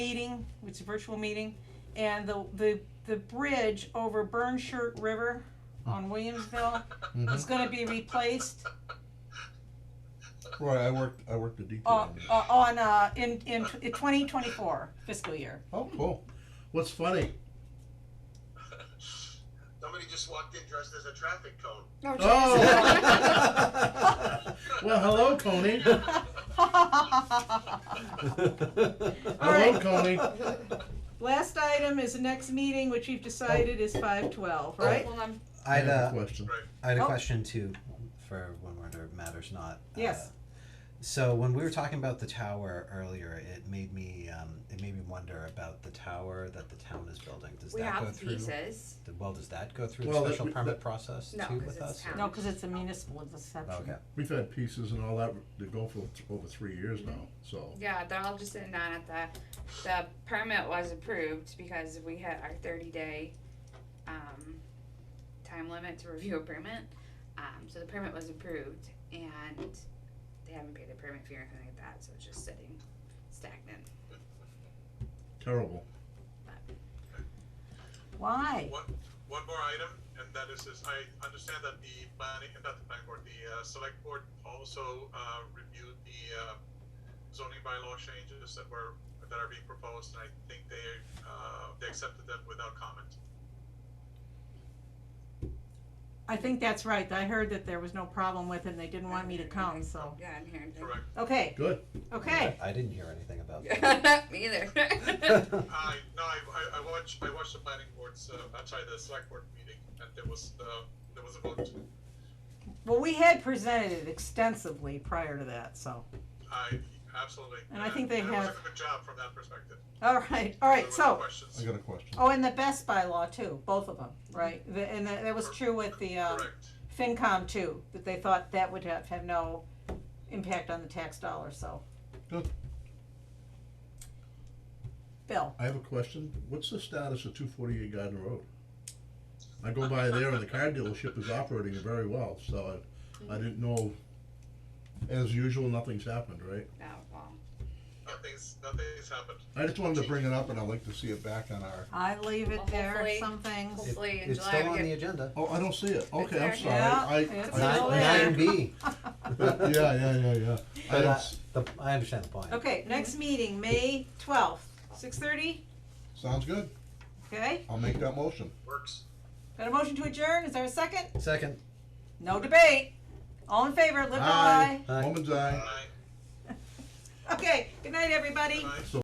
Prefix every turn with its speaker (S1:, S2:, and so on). S1: meeting, it's a virtual meeting, and the, the, the bridge over Burnshirt River on Williamsville is gonna be replaced,
S2: Roy, I worked, I worked a detail.
S1: uh, uh, on,
S2: on it.
S1: uh, in, in twenty twenty-four fiscal year.
S2: Oh, cool. What's funny?
S3: Somebody just walked in dressed as a traffic cone.
S2: Oh. well, hello, Coney. Hello,
S1: Alright.
S2: Coney.
S1: Last item is the next meeting, which we've decided is five twelve, right?
S4: Hold on.
S5: I had
S2: have a
S5: a,
S2: question.
S5: I had
S1: Oh.
S5: a question too, for when we're matters not.
S1: Yes.
S5: uh, So when we were talking about the tower earlier, it made me, um, it made me wonder about the tower that the town is building. Does
S4: We
S5: that go
S4: have the
S5: through?
S4: pieces.
S5: the- Well, does that go through the
S2: Well,
S5: special
S2: that-
S5: permit
S2: that-
S5: process
S4: No,
S5: too
S4: 'cause
S5: with
S4: it's
S5: us?
S4: town.
S1: No, cause it's a municipal deception.
S5: Okay,
S2: We've had pieces and all that that go for th- over three years now, so.
S4: Yeah, they're all just sitting down at the, the permit was approved because we had our thirty day, um, time limit to review a permit. Um, so the permit was approved and they haven't paid the permit fee or anything like that, so it's just sitting stagnant.
S2: Terrible.
S1: Why?
S3: One, one more item, and that is this, I understand that the planning, not the planning board, the uh, select board also uh, reviewed the uh, zoning bylaw changes that were, that are being proposed, and I think they, uh, they accepted them without comment.
S1: I think that's right, I heard that there was no problem with it, and they didn't want me to come, so,
S4: Yeah, I didn't hear anything.
S3: Correct.
S1: okay,
S2: Good.
S1: okay.
S5: I didn't hear anything about that.
S4: Yeah, Me either.
S3: I, no, I, I- I watched, I watched the planning boards, uh, I'm sorry, the select board meeting, and there was, uh, there was a vote.
S1: Well, we had presented it extensively prior to that, so,
S3: I, absolutely.
S1: And I think they
S3: it was
S1: have-
S3: a good job from that perspective.
S1: all right, all
S3: There
S1: right,
S3: were
S1: so.
S3: no questions.
S2: I got a question.
S1: Oh, and the Best by law too, both of them, right? The- And that, that was true with the, um,
S3: Correct.
S1: FinCom too, that they thought that would have, have no impact on the tax dollar, so.
S2: Good.
S1: Bill,
S2: I have a question. What's the status of two forty-eight Garden Road? I go by there and the car dealership is operating very well, so I, I didn't know. As usual, nothing's happened, right?
S4: No, Oh, well,
S3: Nothing's, nothing's happened.
S2: I just wanted to bring it up and I'd like to see it back on our,
S1: I leave it
S4: Well,
S1: there,
S4: hopefully-
S1: some things.
S5: It-
S4: Hopefully in
S5: It's
S4: July
S5: still
S4: we
S5: on
S4: get-
S5: the agenda.
S2: oh, I don't see it. Okay, I'm
S4: there.
S2: sorry.
S1: Yeah,
S2: I-
S1: it's
S2: I-
S1: still
S5: Nine,
S1: there.
S5: nine B.
S2: Yeah, yeah, yeah, yeah. I
S5: But,
S2: don't
S5: uh,
S2: s-
S5: the, I understand the point.
S1: Okay, next meeting, May twelfth, six thirty,
S2: Sounds good.
S1: okay?
S2: I'll make that motion.
S3: Works.
S1: Got a motion to adjourn, is there a second?
S5: Second,
S1: No debate. All in favor, live by.
S5: Aye.
S2: Woman's eye.
S3: Bye.
S1: Okay, good night, everybody.
S3: Bye.